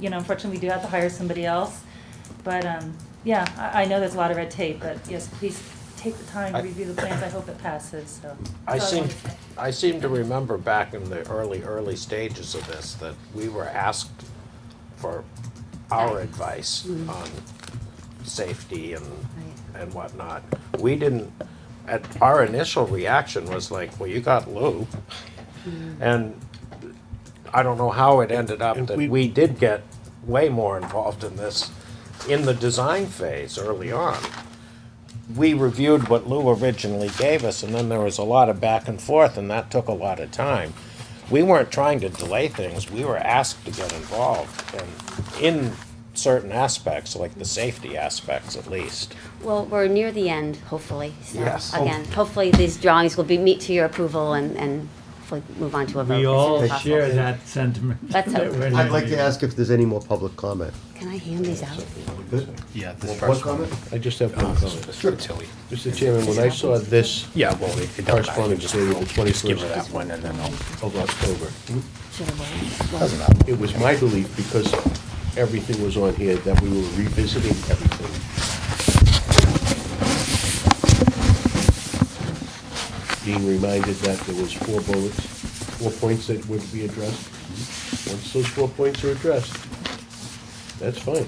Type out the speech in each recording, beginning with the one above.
you know, unfortunately, we do have to hire somebody else. But, um, yeah, I, I know there's a lot of red tape, but yes, please take the time to I- review the plans. I hope it passes, so. I That's all seem, wanted to say. I seem to remember back in the early, early stages of this, that we were asked for our advice on safety and, and whatnot. We didn't, at, our initial reaction was like, well, you got Lou. And I don't know how it ended up And that we- we did get way more involved in this in the design phase early on. We reviewed what Lou originally gave us, and then there was a lot of back and forth, and that took a lot of time. We weren't trying to delay things, we were asked to get involved, and in certain aspects, like the safety aspects at least. Well, we're near the end, hopefully. So, Yes. Again, hopefully these drawings will be, meet to your approval and, and hopefully move on to a vote. as We soon as all possible. share that sentiment. Let's hope. That we're I'd like near to ask if there's any more public comment. Can I hand these out? Yeah, this One comment? I just have one comment. Sure. Mr. Chairman, when I saw this Yeah, well, it it doesn't matter, correspondence just dated the give her twenty-first that one and then I'll. of October, Should I wait? Doesn't matter. it was my belief, because everything was on here, that we were revisiting everything. Being reminded that there was four bullets, four points that would be addressed. Mm-hmm. Once those four points are addressed, that's fine.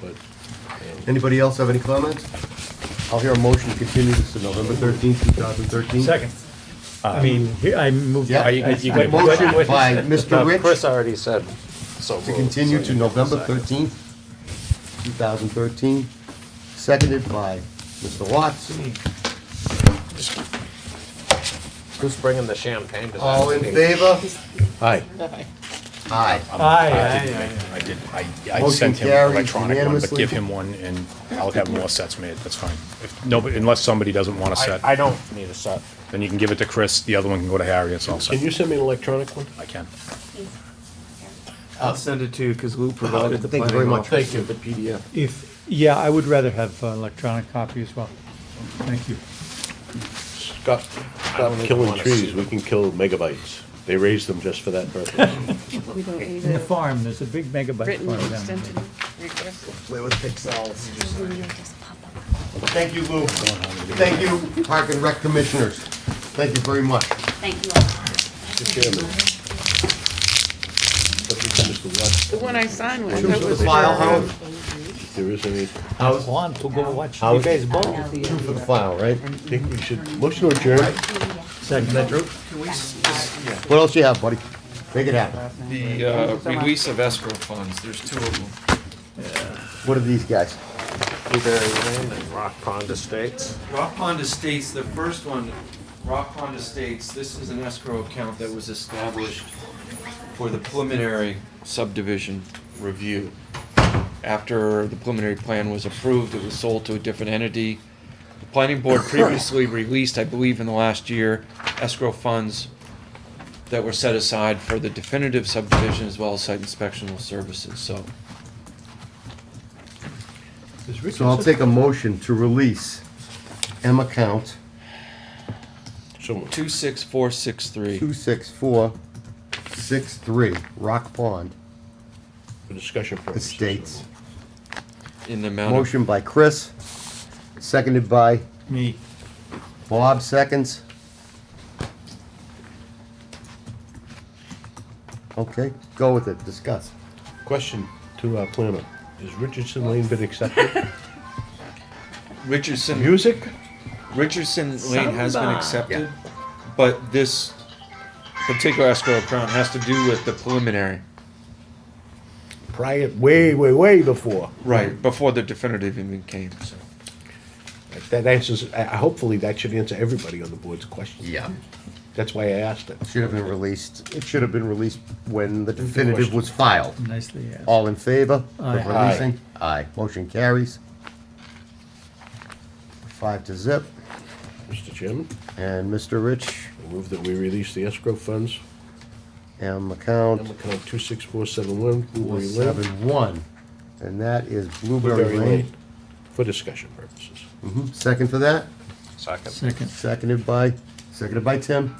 But, um, Anybody else have any comments? I'll hear a motion to continue this to November thirteenth, two thousand thirteen. Second. I mean, here, I moved. Yeah, I- you I- can- you I- can- Motion by Mr. Now, Chris Rich already said so. to moved, continue so to you can November second. thirteenth, two thousand thirteen, seconded by Mr. Watts. Who's bringing the champagne to that? All in meeting? favor? Aye. Aye. Aye, I aye, did, aye. I did, I, I Motion sent him carries an electronic one, but unanimously. give him one and I'll have more sets made, that's fine. If, nobody, unless somebody doesn't want a set, I, I don't need a set. then you can give it to Chris, the other one can go to Harry, it's all Can set. you send me an electronic one? I can. I'll send it to you because Lou provided the Um, Thank you planning very much. office. you. The PDF. If, yeah, I would rather have uh, electronic copy as well. Thank you. Scott, stop even killing wanna see trees, we can kill megabytes. They raise them just for that purpose. We don't need In the a farm, there's a big megabyte written farm down there. extension request. Where was Pixels? Just pop up. Thank you, Lou. Thank you, Park and Rec Commissioners. Thank you very much. Thank you all. The one I signed was. Choose the file, Howard. There is any, I want to go watch the Howard? baseball. Two for the file, right? I think we should, motion to adjourn. Second. What else you have, buddy? Make it happen. The uh, release of escrow funds, there's two of them. What are these guys? Newberry Lane and Rock Pond Estates. Rock Pond Estates, the first one, Rock Pond Estates, this is an escrow account that was established for the preliminary subdivision review. After the preliminary plan was approved, it was sold to a different entity. The planning board previously released, I believe in the last year, escrow funds that were set aside for the definitive subdivision as well as site inspectional services, so. So I'll take a motion to release M account So moved. 26463. two six four six three Rock Pond for discussion purposes. Estates. In the amount of Motion by Chris, seconded by Me. Bob, seconds. Okay, go with it, discuss. Question to our planner, has Richardson Lane been accepted? Richardson, Music? Richardson Lane has been accepted, but this particular escrow account has to do with the preliminary. Prior, way, way, way before. Right, before the definitive even came, so. That answers, I- I- hopefully that should answer everybody on the board's question. Yeah. That's why I asked it. Should have been released, it should have been released when the definitive was filed. Nicely asked. All in favor of Aye. releasing? Aye. Motion carries. Five to zip, Mr. Chairman, and Mr. Rich, I move that we release the escrow funds, M account M account two six four seven one, Blueberry Lane, seven one, and that is Blueberry Blueberry Lane. Lane, for discussion purposes. Mhm. Second for that? Second. Second. Seconded by, seconded by Tim.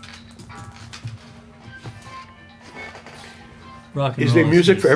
Rock and Is there roll music for estates.